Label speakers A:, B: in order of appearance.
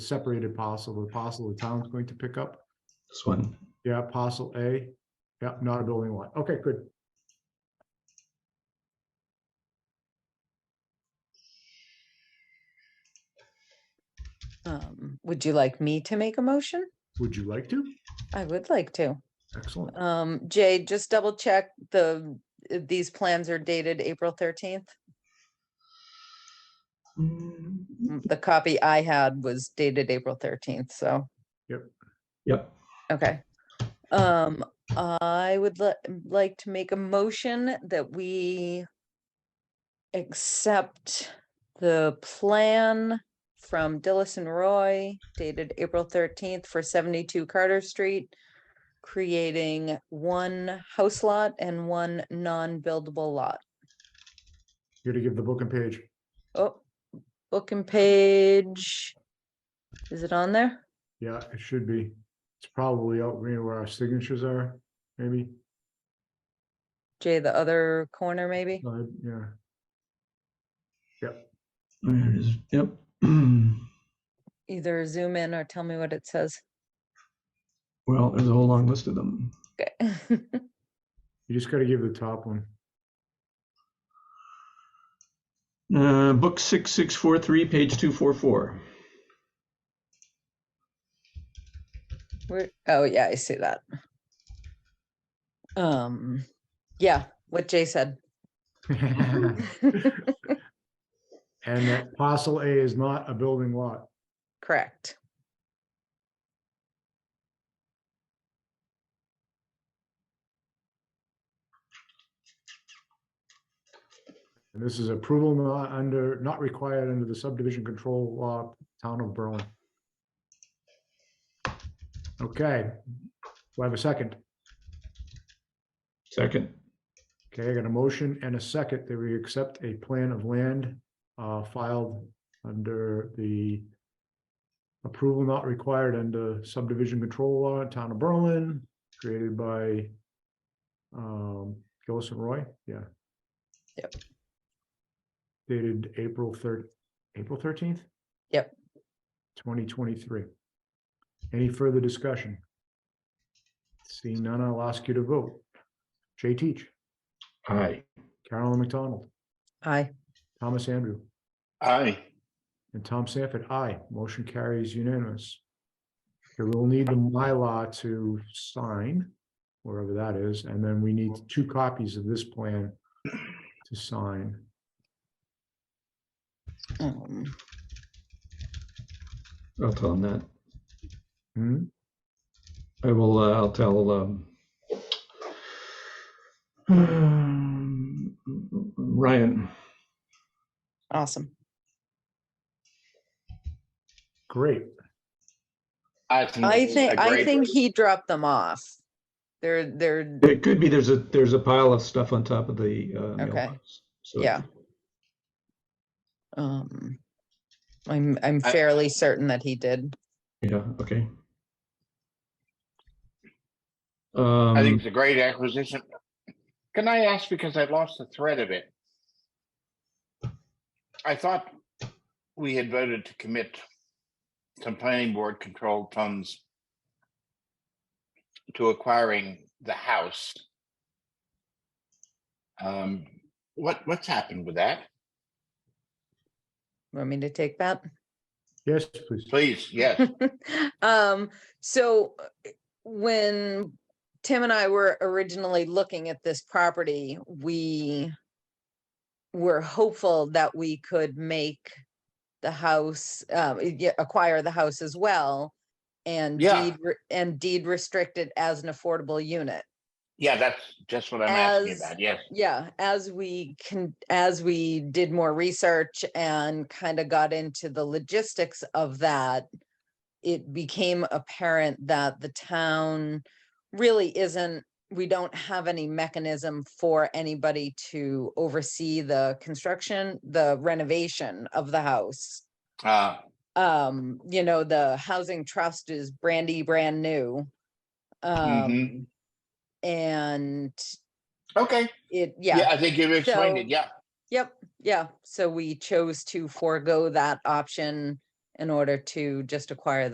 A: separated parcel, the parcel the town's going to pick up.
B: This one.
A: Yeah, parcel A. Yeah, not a building lot. Okay, good.
C: Um, would you like me to make a motion?
A: Would you like to?
C: I would like to.
A: Excellent.
C: Um, Jay, just double check the, uh, these plans are dated April thirteenth.
B: Mm,
C: The copy I had was dated April thirteenth, so,
B: Yep.
C: okay. Um, I would li- like to make a motion that we accept the plan from Dillis and Roy dated April thirteenth for seventy-two Carter Street, creating one house lot and one non-buildable lot.
A: You gotta give the book and page.
C: Oh, book and page. Is it on there?
A: Yeah, it should be. It's probably out near where our signatures are, maybe.
C: Jay, the other corner maybe?
A: No, Uh, Yeah,
B: There it is. Yep.
C: Either zoom in or tell me what it says.
B: Well, there's a whole long list of them.
C: Okay.
A: you just gotta give the top one.
B: Uh, book six, six, four, three, page two, four, four.
C: Where, oh yeah, I see that. Um, yeah, what Jay said.
A: And that parcel A is not a building lot.
C: Correct.
A: And this is approval not under, not required under the subdivision control law, town of Berlin. Okay, do I have a second?
B: Second.
A: Okay, I got a motion and a second that we accept a plan of land uh, filed under the approval not required under subdivision control law, town of Berlin, created by um, Gillis and Roy, yeah.
C: Yep.
A: Dated April third, April thirteenth?
C: Yep.
A: Twenty twenty-three. Any further discussion? Seeing none, I'll ask you to vote. Jay Teach.
B: Aye.
A: Carolyn McDonald,
C: Aye.
A: Thomas Andrew,
D: Aye.
A: and Tom Sanford, aye. Motion carries unanimous. Okay, we'll need the Mylar to sign, wherever that is, and then we need two copies of this plan to sign.
C: Um,
B: I'll tell him that.
A: Hmm,
B: I will, uh, I'll tell, um, um, Ryan.
C: awesome.
A: great.
D: I think.
C: I
D: this is
C: think,
D: a
C: I
D: great-
C: think he dropped them off. They're, they're,
B: It could be, there's a, there's a pile of stuff on top of the, uh, mailbox. So
C: yeah. Um, I'm, I'm
D: I-
C: fairly certain that he did.
B: Yeah, okay.
D: I think
B: Um,
D: it's a great acquisition. Can I ask, because I lost the thread of it? I thought we had voted to commit some planning board controlled funds to acquiring the house. Um, what, what's happened with that?
C: Want me to take that?
A: Yes, please.
D: Please, yes,
C: Um, so uh, when Tim and I were originally looking at this property, we were hopeful that we could make the house, um, y- yeah, acquire the house as well. And
D: Yeah.
C: deed, re- and deed restrict it as an affordable unit.
D: yeah, that's just what I'm asking
C: As-
D: about, yes.
C: Yeah, as we can, as we did more research and kind of got into the logistics of that, it became apparent that the town really isn't, we don't have any mechanism for anybody to oversee the construction, the renovation of the house.
D: Uh,
C: Um, you know, the housing trust is brandy brand new. Um, and
D: mm-hmm. okay,
C: it, yeah.
D: yeah, I think you've explained
C: So-
D: it, yeah.
C: Yep, yeah, so we chose to forego that option in order to just acquire